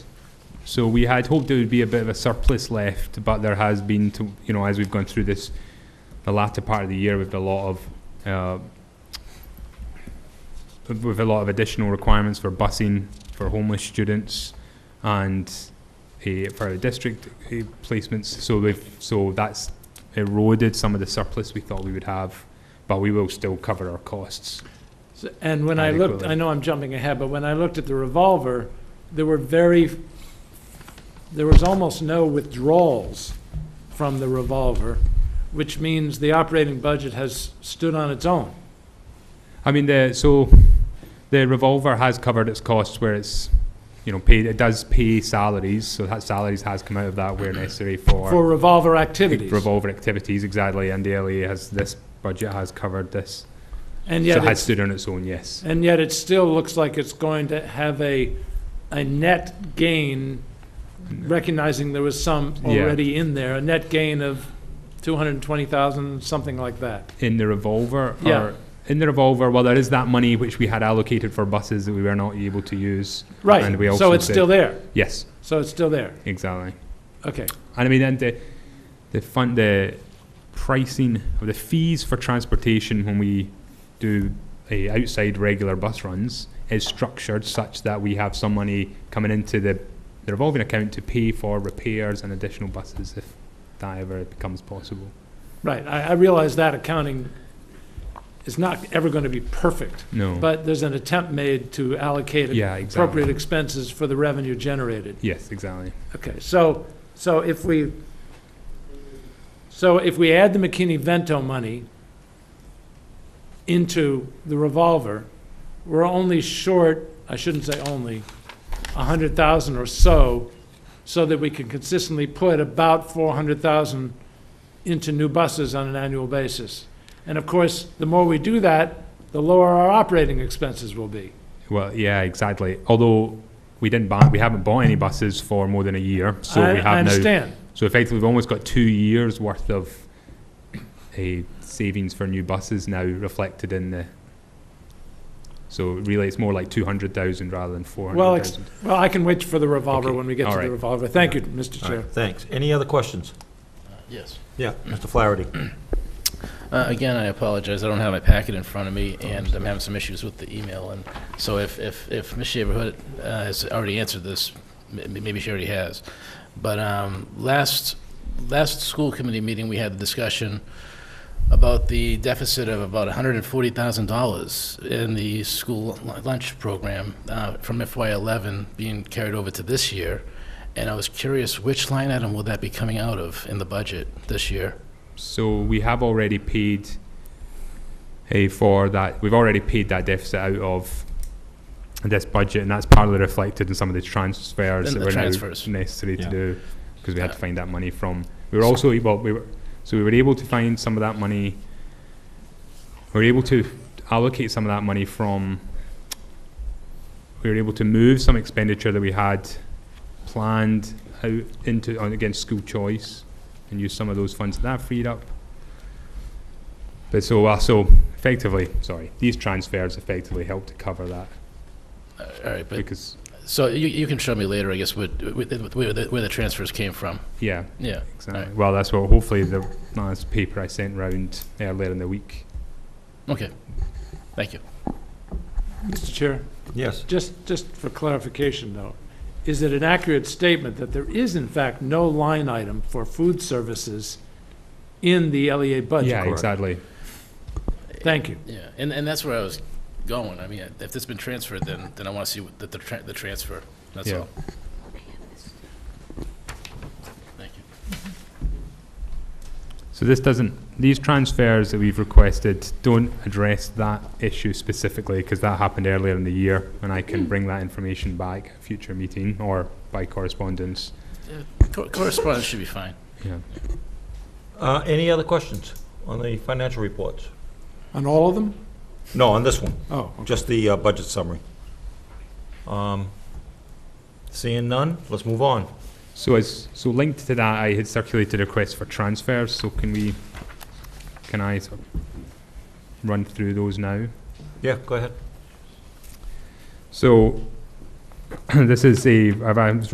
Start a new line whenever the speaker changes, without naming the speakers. So we had hoped there would be a bit of a surplus left, but there has been, to, you know, as we've gone through this, the latter part of the year with a lot of, uh, with a lot of additional requirements for busing for homeless students and uh, for the district uh, placements. So we've, so that's eroded some of the surplus we thought we would have, but we will still cover our costs.
So- And when I looked,
Adequately.
I know I'm jumping ahead, but when I looked at the revolver, there were very, there was almost no withdrawals from the revolver, which means the operating budget has stood on its own.
I mean, the so the revolver has covered its costs where it's you know paid. It does pay salaries, so that salaries has come out of that where necessary for,
Mm-hmm. For revolver activities.
revolver activities exactly. And the LA has this budget has covered this,
And
so
yet,
it has
it's-
stood on its own. Yes,
and yet it still looks like it's going to have a, a net gain, recognizing there was some
Yeah.
already in there, a net gain of 220,000, something like that.
in the revolver.
Yeah.
Or, in the revolver, well, there is that money which we had allocated for buses that we were not able to use.
Right,
And we
so
also
it's
said-
still there.
Yes,
So it's still there.
exactly.
Okay.
And I mean, then the the fund the pricing of the fees for transportation when we do a outside regular bus runs is structured such that we have some money coming into the, the revolving account to pay for repairs and additional buses if that ever becomes possible.
Right. I, I realize that accounting is not ever going to be perfect,
No.
but there's an attempt made to allocate
yeah, exactly.
appropriate expenses for the revenue generated.
Yes, exactly.
Okay, so, so if we, so if we add the McKinney-Vento money into the revolver, we're only short, I shouldn't say only, a hundred thousand or so, so that we can consistently put about four hundred thousand into new buses on an annual basis. And of course, the more we do that, the lower our operating expenses will be.
Well, yeah, exactly. Although we didn't buy, we haven't bought any buses for more than a year, so
I-
we have
I
now
understand.
So effectively, we've almost got two years worth of a savings for new buses now reflected in the. So really, it's more like two hundred thousand rather than four
Well,
hundred
ex-
thousand.
Well, I can wait for the revolver
Okay,
when we get
all
to the
right.
revolver. Thank you, Mr.
All
Chair.
right, thanks. Any other questions?
Yes.
Yeah, Mr. Flaherty.
Uh, Again, I apologize, I don't have my packet in front of me, and Oh, I'm having some issues with the email, and so if, if, if Ms. Shaverhood uh, has already answered this, m- maybe she already has, but um, last, last school committee meeting, we had the discussion about the deficit of about $140,000 in the school lunch program uh, from FY11 being carried over to this year, and I was curious, which line item will that be coming out of in the budget this year?
So we have already paid. A for that, we've already paid that deficit out of this budget, and that's partly reflected in some of the transfers
In
that
the
were
transfers.
now necessary to
Yeah.
do because we had to
Yeah.
find that money from. We were also able, we were, so we were able to find some of that money. We were able to allocate some of that money from. We were able to move some expenditure that we had planned out into on against school choice, and use some of those funds that freed up. But so uh, so effectively, sorry, these transfers effectively helped to cover that
All right, but,
because
so you, you can show me later, I guess, what, what- where, the- where the transfers came from.
yeah,
Yeah.
exactly. Well, that's what hopefully the last paper I sent round earlier in the week.
Okay. Thank you.
Mr. Chair,
Yes.
just, just for clarification, though, is it an accurate statement that there is in fact no line item for food services in the LEA budget?
yeah,
correct.
exactly.
Thank you.
Yeah, and, and that's where I was going. I mean, if it's been transferred, then, then I want to see what the, the, tra- the transfer. That's
Yeah.
all. Thank you.
So this doesn't, these transfers that we've requested don't address that issue specifically because that happened earlier in the year and I can bring that information back at a future meeting or by correspondence.
Cor- Correspondence should be fine.
Yeah.
Uh, Any other questions on the financial reports?
On all of them?
No, on this one,
Oh, okay.
just the uh, budget summary. Um, Seeing none, let's move on.
So as, so linked to that, I had circulated a request for transfers, so can we, can I sort of run through those now?
Yeah, go ahead.
So this is a, I've- I was